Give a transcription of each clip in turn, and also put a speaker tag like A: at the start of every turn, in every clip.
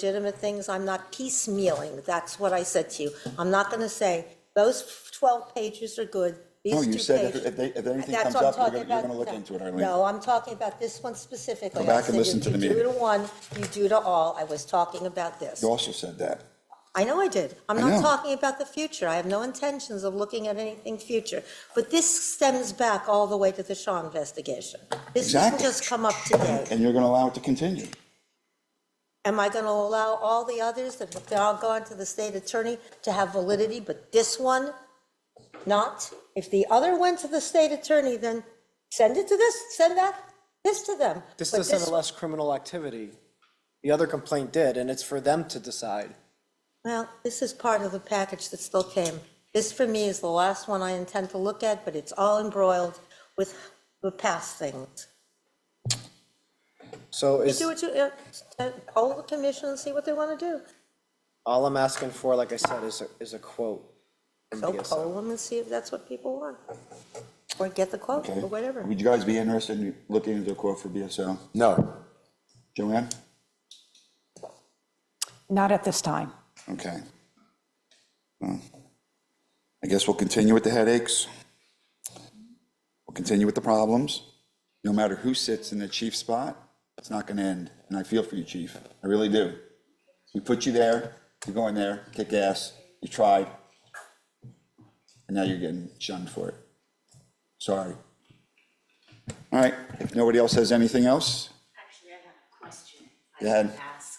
A: legitimate things. I'm not piecemealing. That's what I said to you. I'm not going to say, those 12 pages are good, these two
B: No,
A: pages.
B: you said if- if they- if anything
A: That's
B: comes
A: what I'm
B: up, you're
A: talking
B: gonna- you're
A: about.
B: gonna look into it, Arlene.
A: No, I'm talking about this one specifically.
B: Go back
A: I
B: and
A: said
B: listen
A: if
B: to the
A: You do
B: meeting.
A: to one, you do to all. I was talking about this.
B: You also said that.
A: I know I did. I'm
B: I
A: not
B: know.
A: talking about the future. I have no intentions of looking at anything future. But this stems back all the way to the Shaw investigation. This didn't
B: Exactly.
A: just come up today.
B: And you're gonna allow it to continue.
A: Am I going to allow all the others that have all gone to the state attorney to have validity, but this one not? If the other went to the state attorney, then send it to this, send that, this to them.
C: This
A: But
C: doesn't less criminal activity. The other complaint did, and it's for them to decide.
A: Well, this is part of the package that still came. This for me is the last one I intend to look at, but it's all embroiled with the past things.
C: So
A: You
C: is,
A: do what you, uh, uh, poll the commission and see what they want to do.
C: all I'm asking for, like I said, is a, is a quote. from
A: So
C: DSO.
A: poll them and see if that's what people want. Or get the quote
B: Okay.
A: or whatever.
B: Would you guys be interested in looking into a quote for BSL?
D: No.
B: Joanne?
E: Not at this time.
B: Okay. Well, I guess we'll continue with the headaches. We'll continue with the problems. No matter who sits in the chief spot, it's not gonna end. And I feel for you, chief. I really do. We put you there, you go in there, kick ass, you tried. And now you're getting shunned for it. Sorry. All right, if nobody else has anything else,
F: Actually, I have a question.
B: Go
F: I can
B: ahead.
F: ask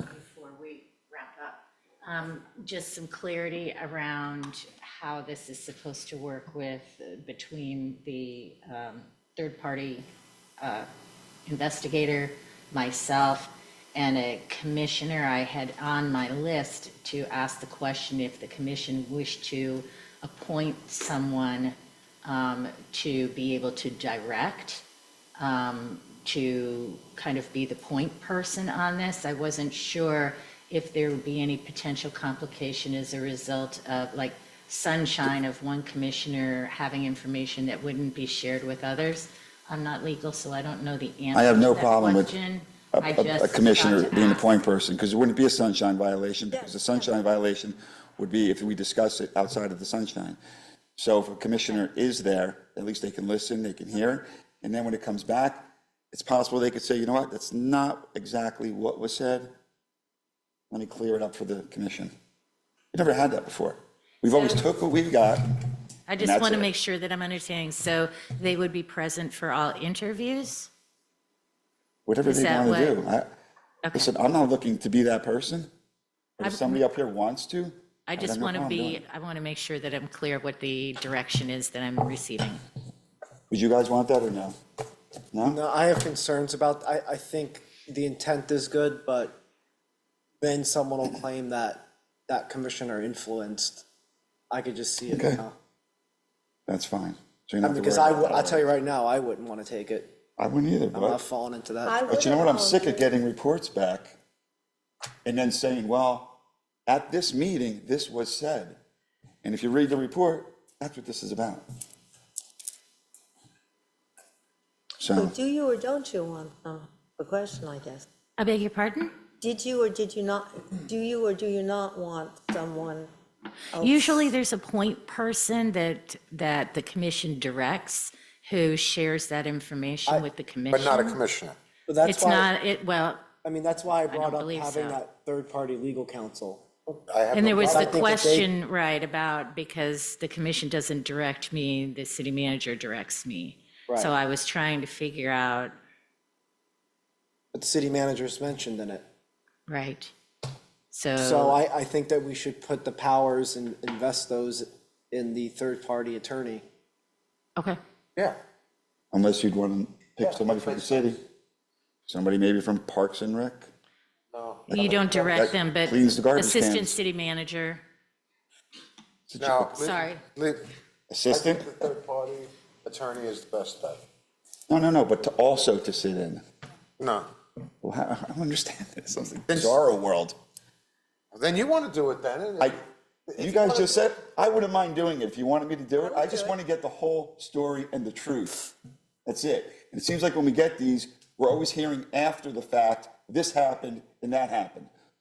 F: um, before we wrap up. Um, Just some clarity around how this is supposed to work with, uh, between the um, third-party uh, investigator, myself, and a commissioner I had on my list to ask the question if the commission wished to appoint someone um, to be able to direct um, to kind of be the point person on this. I wasn't sure if there would be any potential complication as a result of like sunshine of one commissioner having information that wouldn't be shared with others. I'm not legal, so I don't know the answer.
B: I have no
F: to that
B: problem with
F: question.
B: a-
F: I
B: a-
F: just
B: a commissioner
F: thought to
B: being the
F: ask.
B: point person, because it wouldn't be a sunshine violation, because
A: Yeah,
B: the sunshine violation would be if we discuss it outside of the sunshine. So if a commissioner is there, at least they can listen, they can hear, and then when it comes back, it's possible they could say, you know what, that's not exactly what was said. Let me clear it up for the commission. We've never had that before. We've always took what we've got.
F: I
B: and
F: just
B: that's
F: want to
B: it.
F: make sure that I'm understanding. So they would be present for all interviews?
B: whatever
F: Is
B: they
F: that
B: want to
F: what-
B: do. I,
F: Okay.
B: listen, I'm not looking to be that person, but if
F: I've-
B: somebody up here wants to.
F: I
B: I've
F: just
B: got no
F: want to
B: problem doing
F: be,
B: it.
F: I want to make sure that I'm clear of what the direction is that I'm receiving.
B: Would you guys want that or no? No?
C: No, I have concerns about, I, I think the intent is good, but then someone will claim that that commissioner influenced. I could just see it
B: Okay.
C: now.
B: That's fine. So you're not
C: I mean,
B: to
C: because
B: worry
C: I,
B: about
C: wou- I'll
B: that.
C: tell you right now, I wouldn't want to take it.
B: I wouldn't either,
C: I'm not
B: but,
C: falling into
A: I
C: that.
B: but you know what? I'm sick of
A: wouldn't-
B: getting reports back and then saying, well, at this meeting, this was said. And if you read the report, that's what this is about.
A: So
B: So,
A: do you or don't you want, uh, the question, I guess.
F: I beg your pardon?
A: Did you or did you not, do you or do you not want someone?
B: Oh.
F: Usually there's a point person that, that the commission directs who shares that information with the
D: But
F: commission.
D: not a commissioner.
C: But that's
F: It's
C: why,
F: not, it, well,
C: I mean, that's why I
F: don't
C: brought up
F: believe
C: having
F: so.
C: that third-party legal counsel.
D: I have
F: and
D: no
F: there was
C: But I
F: the
C: think that they-
F: question, right, about because the commission doesn't direct me, the city manager directs me.
C: Right.
F: So I was trying to figure out,
C: But the city manager's mentioned in it.
F: right,
C: So I, I think that we should put the powers and invest those in the third-party attorney.
F: Okay.
D: Yeah.
B: unless you'd want to pick somebody from the city, somebody maybe from Parks and Rec.
F: You don't direct them, but
B: cleans the garbage
F: assistant
B: cans.
F: city manager,
D: Now. li-
F: Sorry.
D: li- I
B: Assistant?
D: think the third-party attorney is the best bet.
B: No, no, no, but to also to sit in.
D: No.
B: Well, I I don't understand this. It's like bizarro world.
D: Then you want to do it then. and-
B: I, you guys just said, I wouldn't mind doing it if you wanted me to do it. I just
A: do it.
B: want to get the whole story and the truth. That's it. And it seems like when we get these, we're always hearing after the fact, this happened and that happened.